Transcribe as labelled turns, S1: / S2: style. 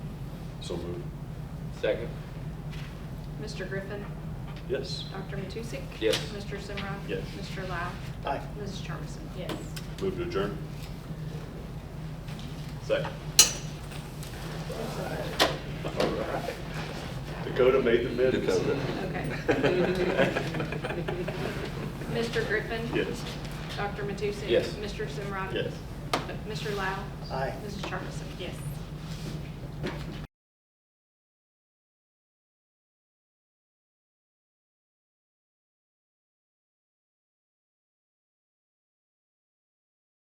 S1: So moved.
S2: Second.
S3: Mr. Griffin.
S1: Yes.
S3: Dr. Matusek.
S2: Yes.
S3: Mr. Zimmerman.
S1: Yes.
S3: Mr. Lau.
S4: Aye.
S3: Mrs. Charmison.
S5: Yes.
S1: Move to adjourn. Second. All right. Dakota made the minutes.
S2: Dakota.
S3: Okay. Mr. Griffin.
S1: Yes.
S3: Dr. Matusek.
S2: Yes.
S3: Mr. Zimmerman.
S1: Yes.
S3: Mr. Lau.
S4: Aye.
S3: Mrs. Charmison.
S5: Yes.